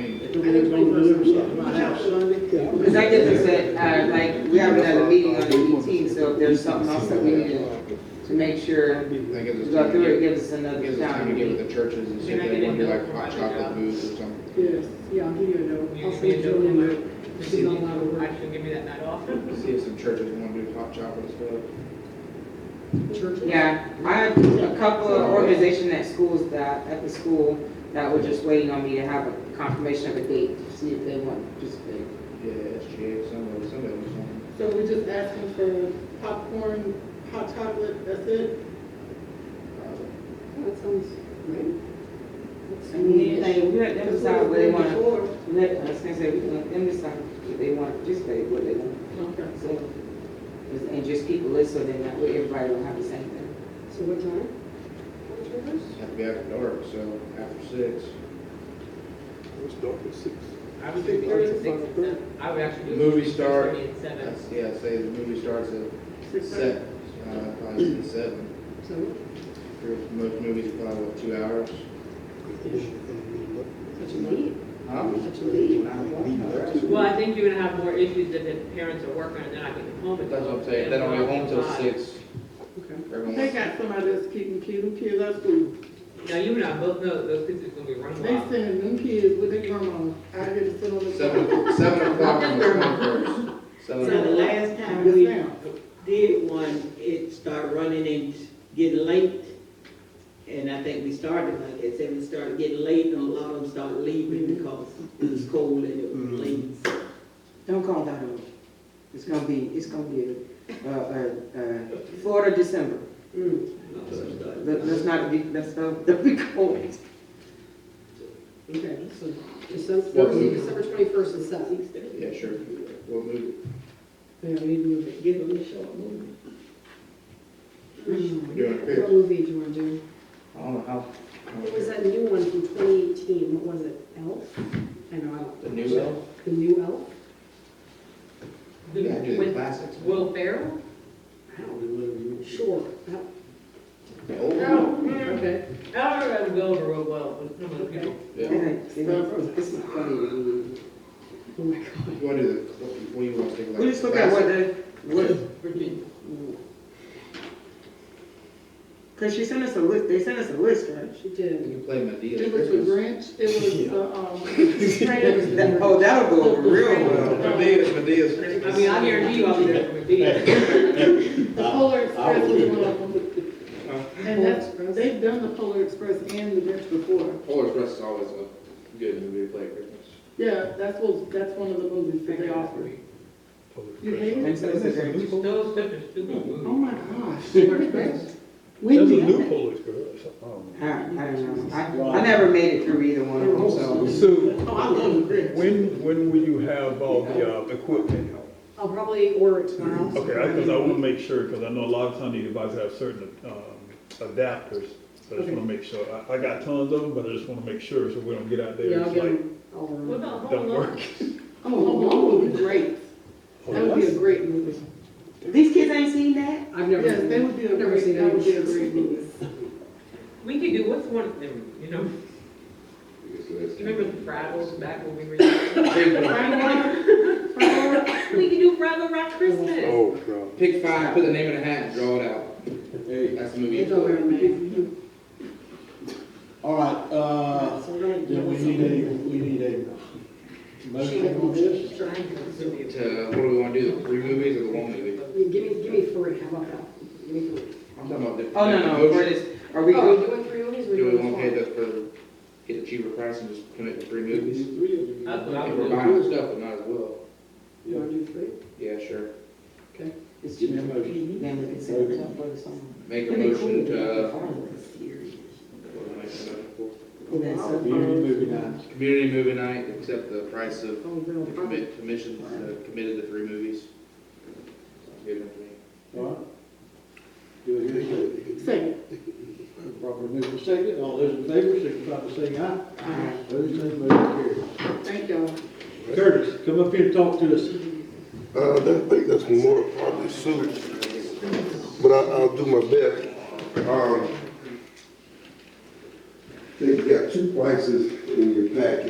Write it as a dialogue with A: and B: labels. A: man's gonna deliver something to my house Sunday.
B: Because I get this at, uh, like, we have another meeting on the eighteenth, so if there's something else that we need to, to make sure,
C: I think
B: to
C: it's
B: go through it,
C: time,
B: gives us another
C: gives us time to
B: time.
C: get with the churches and see if they want to do like hot chocolate booths or something.
D: Yes, yeah, I'll give you a note. I'll send Julie a note. She's on my
E: I
D: board.
E: should give me that night off.
C: See if some churches want to do hot chocolate stuff.
B: Yeah, I have a couple of organizations at schools that, at the school, that were just waiting on me to have a confirmation of a date, to see if they want to participate.
C: Yeah, SGA, some of, some of them, something.
A: So we're just asking for popcorn, hot chocolate, that's it?
D: That sounds great.
B: I mean, like, we let them decide what they want, to
A: Before.
B: let, I was gonna say, we let them decide if they want to participate, what they want.
A: Okay.
B: So, And just keep a list, so then that way everybody will have the same thing.
D: So what time? What time is it?
C: Have to be after dark, so after six.
F: It's dark at six.
E: I would do
F: Or
E: three
F: it's
E: to six,
F: five thirty.
E: I would actually do.
C: Movie
E: six
C: star.
E: thirty and seven.
C: That's- Yeah, say the movie starts at
A: Six thirty?
C: seven, uh, probably seven.
D: So,
C: For Most movies are probably what, two hours.
D: what you need?
C: Huh?
D: What you need?
E: Well, I think you're gonna have more issues if the parents are working and they're not getting home.
C: But
E: until
C: That's what I'm saying, they don't get home till six.
D: Okay.
A: They
C: Everyone,
A: got somebody that's keeping kids, them kids out of school.
E: Now, you and I both know those kids are gonna be running
A: They
E: wild.
A: sending them kids with their grandma out here to sit on the. curb.
C: seven, seven o'clock on the twenty-first.
G: So the
C: Seven,
G: last time
A: Yes,
G: we
A: ma'am.
G: did one, it started running and getting late. And I think we started, like I said, we started getting late and a lot of them started leaving
B: Mm-hmm.
G: because it was cold and it was late.
B: Don't call that over. It's gonna be, it's gonna be, uh, uh, uh, Florida December.
D: Mm,
G: So it started-
B: Let- Let's not be, let's not, let be cold.
D: Okay, so December,
C: What
D: Thursday,
C: movie?
D: December twenty-first and seventh.
C: yeah, sure. What movie?
D: Yeah, we move it. Give them the short movie.
C: Doing a
D: What
C: picture.
D: movie do you want to do?
C: I don't know how.
D: It was that new one from twenty eighteen, what was it, Elf? I know, I don't.
C: The new elf?
D: The new Elf?
C: You gotta do the
E: With
C: classics.
E: Will Ferrell?
D: I don't know. Sure. Elf.
C: The old one?
E: No.
D: Okay.
E: I don't remember Will over real well with some of the people.
C: Yeah.
B: This is funny.
D: Oh my God.
C: You wanna do the, what do you want to take? like,
B: We just look at what
C: classic?
B: the, what, cause she sent us a list, they sent us a list, right?
D: She did.
C: You can play Medea.
A: It was the Grinch, it was the, um, Fred,
B: That- Oh, that'll go over real well.
C: Medea, Medea's
E: I
C: Christmas.
E: mean, I guarantee you I'll be there for the
A: the Polar Express was one of them. And that's, they've done the Polar Express and the Grinch before.
C: Polar Express is always a good movie to play at Christmas.
A: Yeah, that's what, that's one of the movies that they offer. You hate it?
B: And so it's a very-
E: Those such a stupid
A: Oh my
E: movie.
A: gosh, Polar Express.
F: There's a
A: Wendy, I
F: new
A: think
F: Polish girl or something. I don't know.
B: I, I don't know. I, I never made it through either one of them, so.
F: So
A: Oh, I love the Grinch.
F: when, when will you have all the uh, equipment?
D: I'll probably order it tomorrow.
F: Okay, because I want to make sure, because I know a lot of times these devices have certain um, adapters. So I just
D: Okay.
F: want to make sure. I, I got tons of them, but I just want to make sure so we don't get out there.
D: Yeah, I'll
F: it's
D: get
F: like,
D: them. I'll order
E: What
D: 'em.
E: about Home
F: Don't
E: Alone?
F: work.
A: Oh, oh, oh, would be great. That would be a great movie.
B: These kids ain't seen that?
D: I've never.
A: Yes,
D: seen
A: that
D: it.
A: would be a
D: I've never
A: great-
D: seen
A: that would
D: any.
A: be a great movie.
E: We could do, what's one of them, you know? Remember the Fraggles back when we were young? We could do Fraggle Rock Christmas.
F: Oh, God.
C: Pick five, put the name in a hat, and draw it out. That's the movie.
D: It's over, man.
H: All right, uh,
D: So we're gonna
H: yeah,
D: do
H: we
D: something.
H: need a, we need a motion on this.
C: To, what do we want to do, the three movies or the one movie?
D: I mean, Give me, give me three, how about that? Give me three.
C: I'm talking about the.
B: Oh, no, no, for this, are
A: Oh.
B: we
D: Are we
B: going,
H: Oh.
D: doing three movies or
C: Do we
D: doing
C: want to pay
D: four?
C: the, for, get a cheaper price and just commit to three movies?
E: That's what I
C: If
E: would
C: we're
E: do.
C: buying stuff, we might as well.
D: You wanna do three?
C: Yeah, sure.
B: it's
H: Give me a
B: cheaper.
H: motion.
B: Then we can set it up for the song.
C: Make a
B: It'd be cool
C: motion to,
B: to do
C: uh,
B: a farm this year.
C: what am I saying?
B: And then some-
H: Community movie night.
C: uh, Community movie night, accept the price of
D: Oh, no,
C: the
D: probably.
C: commit, commission, uh, committed to three movies. Sounds good to me.
H: All right. Do it here.
A: Second.
H: Proper move for second, all those in favor, signify by saying aye.
B: Aye.
H: Those opposed, motion
A: Thank y'all.
H: carries. Curtis, come up here and talk to us.
I: Uh, I think that's more probably suit, but I, I'll do my best. Um, they've got two prices in your packet.